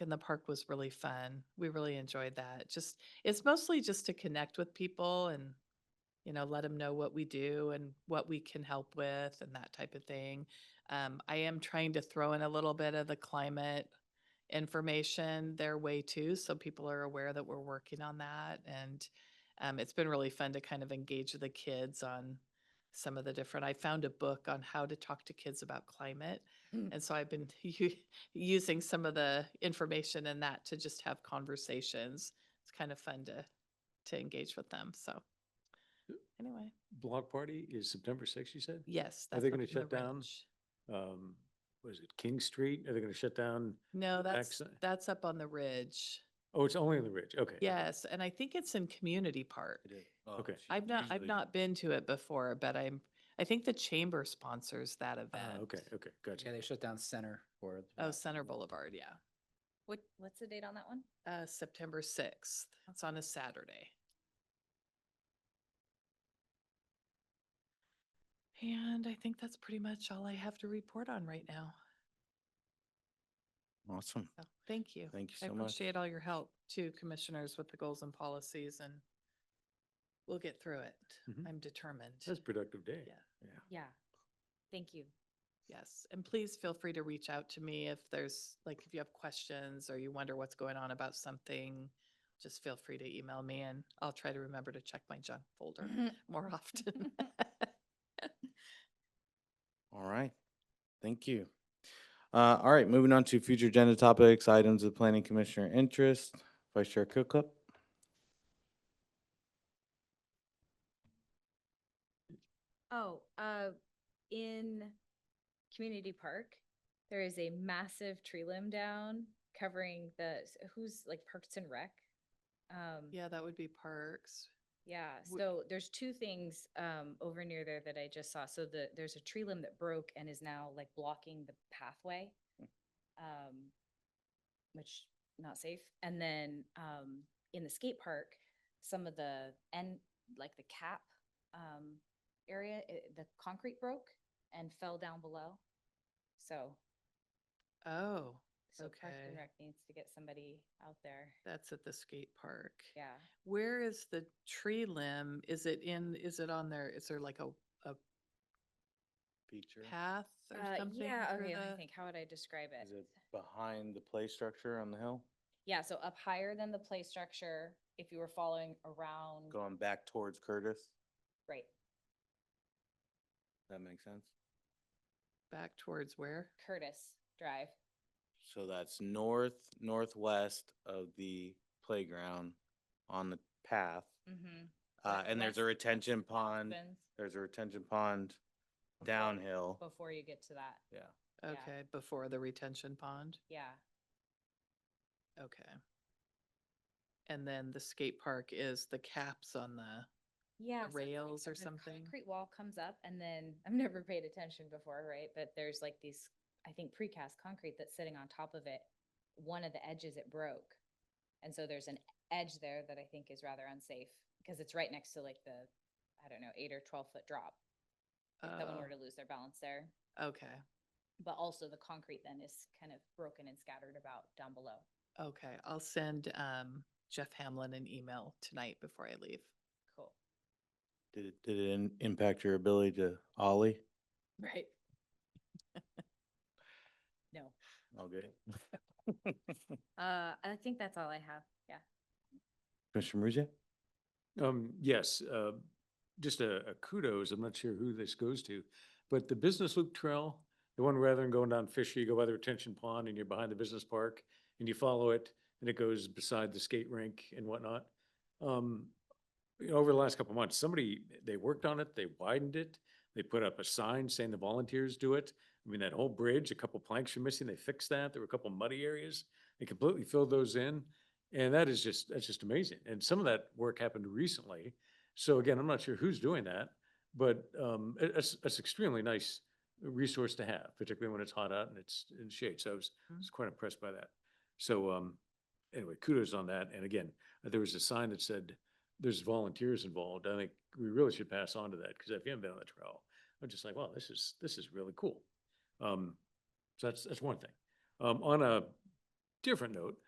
and the park was really fun. We really enjoyed that. Just, it's mostly just to connect with people and, you know, let them know what we do and what we can help with and that type of thing. Um, I am trying to throw in a little bit of the climate information their way too, so people are aware that we're working on that. And um, it's been really fun to kind of engage the kids on some of the different. I found a book on how to talk to kids about climate, Mm. and so I've been u- using some of the information in that to just have conversations. It's kind of fun to to engage with them. So anyway, Block party is September sixth, you said? yes. Are that's they up gonna in the shut down? Ranch. Um, was it King Street? Are they gonna shut down? No, that's Excellent. that's up on the ridge. Oh, it's only in the ridge. Okay. Yes, and I think it's in Community Park. Okay. I've not, I've not been to it before, but I'm, I think the chamber sponsors that Ah, event. okay, okay, Yeah, gotcha. they shut down center for. Oh, Center Boulevard, yeah. What, what's the date on that one? Uh, September sixth. It's on a Saturday. And I think that's pretty much all I have to report on right now. Awesome. So, Thank you. Thank you I so much. appreciate all your help too, commissioners, with the goals and policies and we'll get through it. Mhm. Mm-hmm. I'm determined. That's a productive day. Yeah. Yeah. Yeah. Thank you. Yes, and please feel free to reach out to me if there's, like, if you have questions or you wonder what's going on about something, just feel free to email me and I'll try to remember to check my junk folder more often. All right. Thank you. Uh, all right, moving on to future agenda topics, items of planning commissioner interest, Vice Chair Cookup. Oh, uh, in Community Park, there is a massive tree limb down covering the, s- who's like Parks and Rec? Um, Yeah, that would be parks. Yeah, Wh- so there's two things um over near there that I just saw. So the there's a tree limb that broke and is now like blocking the pathway. Hmm. Um, which not safe. And then um in the skate park, some of the end like the cap um area, i- the concrete broke and fell down below. So Oh, so Parks and Okay. Rec needs to get somebody out there. that's at the skate park. Yeah. Where is the tree limb? Is it in, is it on there? Is there like a, a Feature. path or Uh, something? yeah, through okay, let me the- think. How would I describe it? Is it behind the play structure on the hill, Yeah, so up higher than the play structure, if you were following around, going back towards Curtis? right, That makes sense. Back towards where? Curtis Drive. So that's north, northwest of the playground on the path. Mm-hmm. Uh, and there's a Northwest. retention pond, there's a retention pond downhill. Before you get to that, Yeah. Yeah. Okay, before the retention pond? yeah, Okay. And then the skate park is the caps on the, yeah. so it's like rails or the something? Concrete wall comes up and then, I've never paid attention before, right, but there's like these, I think precast concrete that's sitting on top of it. One of the edges it broke, and so there's an edge there that I think is rather unsafe, because it's right next to like the, I don't know, eight or twelve foot drop. If someone were Oh. to lose their balance there. okay, but also the concrete then is kind of broken and scattered about down below. okay. I'll send um Jeff Hamlin an email tonight before I leave. Cool. Did it, did it in- impact your ability to ollie? Right. No, All good. uh, I think that's all I have. Yeah. Commissioner Muzia? Um, yes, uh, just a a kudos, I'm not sure who this goes to, but the Business Loop Trail, the one rather than going down Fisher, you go by the retention pond and you're behind the business park and you follow it and it goes beside the skate rink and whatnot. Um, you know, over the last couple of months, somebody, they worked on it, they widened it, they put up a sign saying the volunteers do it. I mean, that whole bridge, a couple planks were missing, they fixed that, there were a couple muddy areas, they completely filled those in. And that is just, that's just amazing. And some of that work happened recently. So again, I'm not sure who's doing that, but um, it- it's, it's extremely nice resource to have, particularly when it's hot out and it's in shade. So I was, I Mhm. was quite impressed by that. So um, anyway, kudos on that. And again, uh, there was a sign that said, there's volunteers involved. I think we really should pass on to that because if you haven't been on the trail, I'm just like, wow, this is, this is really cool. Um, So that's, that's one thing. Um, On a different note,